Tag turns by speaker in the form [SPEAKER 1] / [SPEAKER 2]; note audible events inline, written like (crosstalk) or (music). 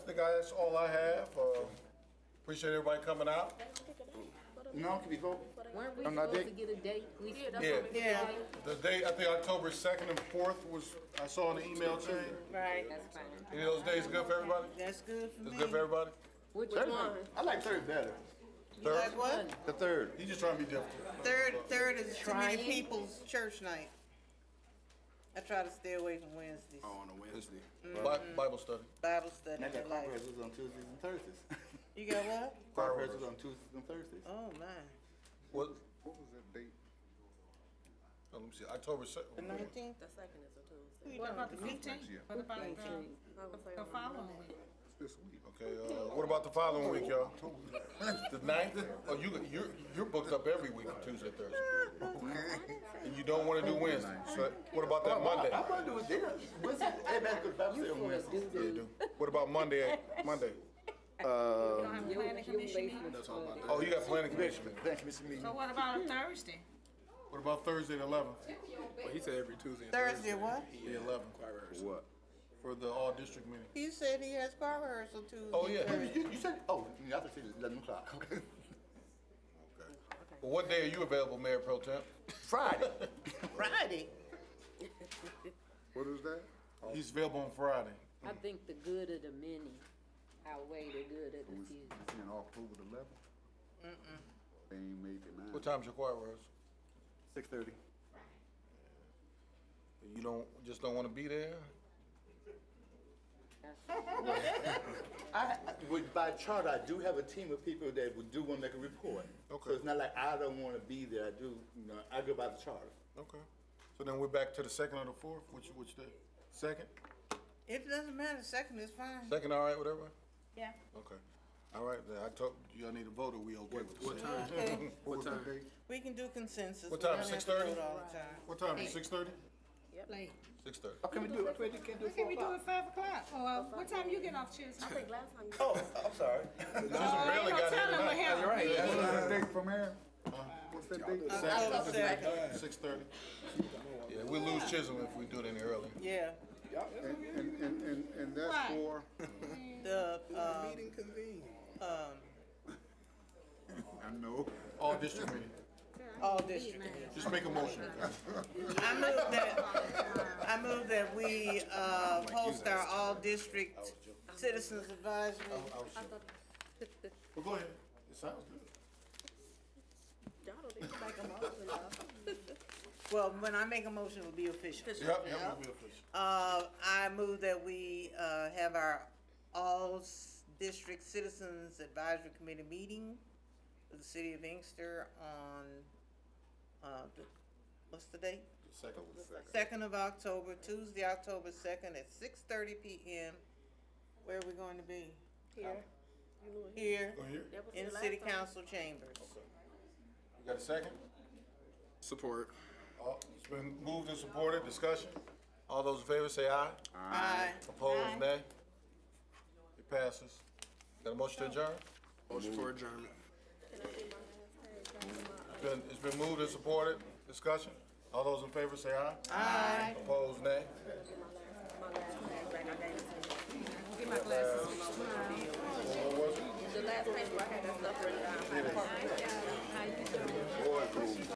[SPEAKER 1] guys, all I have. Uh, Appreciate everybody coming out.
[SPEAKER 2] No, can we vote?
[SPEAKER 3] Weren't we
[SPEAKER 2] On that
[SPEAKER 3] supposed to
[SPEAKER 2] date?
[SPEAKER 3] get a date? We-
[SPEAKER 1] Yeah.
[SPEAKER 4] Yeah.
[SPEAKER 1] The date, I think October 2nd and 4th was, I saw in the email chain.
[SPEAKER 4] Right.
[SPEAKER 3] That's fine.
[SPEAKER 1] Any of those days good for everybody?
[SPEAKER 4] That's good for
[SPEAKER 1] It's
[SPEAKER 4] me.
[SPEAKER 1] good for everybody?
[SPEAKER 3] Which
[SPEAKER 2] Third.
[SPEAKER 3] one?
[SPEAKER 2] I like third better.
[SPEAKER 4] You like
[SPEAKER 1] Third?
[SPEAKER 4] what?
[SPEAKER 2] The third.
[SPEAKER 1] He just trying to be different.
[SPEAKER 4] Third, third is too many
[SPEAKER 3] Trying.
[SPEAKER 4] people's church night. I try to stay away from Wednesdays.
[SPEAKER 1] Oh.
[SPEAKER 2] On a Wednesday.
[SPEAKER 1] Bi- Bible study.
[SPEAKER 4] Bible study
[SPEAKER 2] And I
[SPEAKER 4] for
[SPEAKER 2] got
[SPEAKER 4] life.
[SPEAKER 2] conferences on Tuesdays and (laughs) Thursdays.
[SPEAKER 4] You got what?
[SPEAKER 2] Conferences on Tuesdays and Thursdays.
[SPEAKER 4] Oh my.
[SPEAKER 1] What? What was that date? Let me see, October 2nd.
[SPEAKER 4] The nineteenth?
[SPEAKER 5] The second is a Tuesday.
[SPEAKER 6] What about the fifteenth? What about um,
[SPEAKER 5] I would say
[SPEAKER 6] the
[SPEAKER 5] on
[SPEAKER 6] following week?
[SPEAKER 1] Okay, uh, what about the following week, y'all? The ninth? Oh, you, you're, you're booked up every week, Tuesday, Thursday. And you don't wanna do Wednesday, so what about that Monday?
[SPEAKER 2] I want to do it there. Wednesday, everybody goes to Bible study on Wednesdays.
[SPEAKER 1] Yeah, you do. What about Monday, (laughs) Monday?
[SPEAKER 6] You don't have a planning commission meeting?
[SPEAKER 1] Oh, you got planning commission.
[SPEAKER 2] Thank you, Mr. Meeting.
[SPEAKER 6] So what about a Thursday?
[SPEAKER 1] What about Thursday, the eleventh?
[SPEAKER 7] He said every Tuesday and
[SPEAKER 4] Thursday what?
[SPEAKER 1] The eleventh,
[SPEAKER 2] What?
[SPEAKER 1] for the all-district meeting.
[SPEAKER 4] He said he has choir rehearsal Tuesday.
[SPEAKER 1] Oh, yeah.
[SPEAKER 4] Thursday.
[SPEAKER 2] You, you said, oh, I thought you said eleven o'clock. (laughs) Okay.
[SPEAKER 1] But what day are you available, Mayor Pro Temp?
[SPEAKER 2] (laughs) Friday.
[SPEAKER 4] Friday.
[SPEAKER 7] What is that?
[SPEAKER 1] He's available on Friday.
[SPEAKER 3] I think the good of the many outweigh the good of the few.
[SPEAKER 7] In October the eleventh? Mm-mm. They ain't making nine.
[SPEAKER 1] What time's your choir rehearsal?
[SPEAKER 2] Six thirty.
[SPEAKER 1] You don't, just don't wanna be there?
[SPEAKER 2] I, I- with, by charter, I do have a team of people that would do want to make a report.
[SPEAKER 1] Okay.
[SPEAKER 2] So it's not like I don't want to be there. I do, you know, I go by the charter.
[SPEAKER 1] Okay. So then we're back to the second or the fourth, which, which day? Second?
[SPEAKER 4] It doesn't matter, second is fine.
[SPEAKER 1] Second, all right, whatever?
[SPEAKER 6] Yeah.
[SPEAKER 1] Okay. All right, then I told, y'all need a vote, or we okay with this? (laughs)
[SPEAKER 4] Okay,
[SPEAKER 7] What time?
[SPEAKER 4] we can do consensus.
[SPEAKER 1] What
[SPEAKER 4] We
[SPEAKER 1] time,
[SPEAKER 4] don't have to
[SPEAKER 1] 6:30?
[SPEAKER 4] do it all the time.
[SPEAKER 1] What time, six thirty?
[SPEAKER 6] Late.
[SPEAKER 1] Six thirty.
[SPEAKER 2] Oh, can we do it? Wait, you can't do it.
[SPEAKER 6] Can
[SPEAKER 2] four
[SPEAKER 6] we do it
[SPEAKER 2] o'clock?
[SPEAKER 6] five o'clock? Or uh, what time you get off Tuesday?
[SPEAKER 5] I think last time you.
[SPEAKER 2] Oh, I'm sorry.
[SPEAKER 6] I ain't
[SPEAKER 1] barely
[SPEAKER 6] gonna
[SPEAKER 1] got
[SPEAKER 6] tell
[SPEAKER 1] here
[SPEAKER 6] them
[SPEAKER 1] tonight.
[SPEAKER 6] ahead.
[SPEAKER 7] What's that date?
[SPEAKER 4] Oh, the second.
[SPEAKER 1] Six thirty? Yeah, we lose Chisholm if we do it any earlier.
[SPEAKER 4] Yeah,
[SPEAKER 7] And, and- and, and, and that's
[SPEAKER 6] Right.
[SPEAKER 7] for?
[SPEAKER 4] the, um,
[SPEAKER 7] Meeting convened.
[SPEAKER 4] um,
[SPEAKER 7] I know.
[SPEAKER 1] All district meeting.
[SPEAKER 4] all district.
[SPEAKER 1] Just make a motion. guys.
[SPEAKER 4] I move that, I move that we, uh, host our all-district citizens advisory.
[SPEAKER 1] Well, go ahead. It sounds good.
[SPEAKER 5] Y'all don't even make a motion, though.
[SPEAKER 4] Well, when I make a motion, it'll be official.
[SPEAKER 1] Yep, yep, we'll be official.
[SPEAKER 4] Uh, I move that we, uh, have our all-district citizens advisory committee meeting of the city of Inkster on, uh, the- what's the date?
[SPEAKER 1] Second.
[SPEAKER 4] Second of October, Tuesday, October second at six thirty PM. Where are we going to be?
[SPEAKER 5] Here. You knew it.
[SPEAKER 4] Here,
[SPEAKER 1] Go here.
[SPEAKER 5] That was
[SPEAKER 4] in the
[SPEAKER 5] last
[SPEAKER 4] city
[SPEAKER 5] time.
[SPEAKER 4] council chambers.
[SPEAKER 1] You got a second?
[SPEAKER 7] Support.
[SPEAKER 1] Oh, It's been moved and supported, discussion. All those in favor say aye.
[SPEAKER 4] Aye.
[SPEAKER 1] Opposed, nay. It passes. Got a motion to adjourn?
[SPEAKER 7] Motion for adjournment.
[SPEAKER 1] It's been, it's been moved and supported, discussion. All those in favor say aye. Aye. Opposed, nay.
[SPEAKER 5] My last paper, I gave it to you.
[SPEAKER 6] Get my glasses.
[SPEAKER 1] What was it?
[SPEAKER 5] The last paper, I had that stuff written down.
[SPEAKER 1] Boy, it's moved.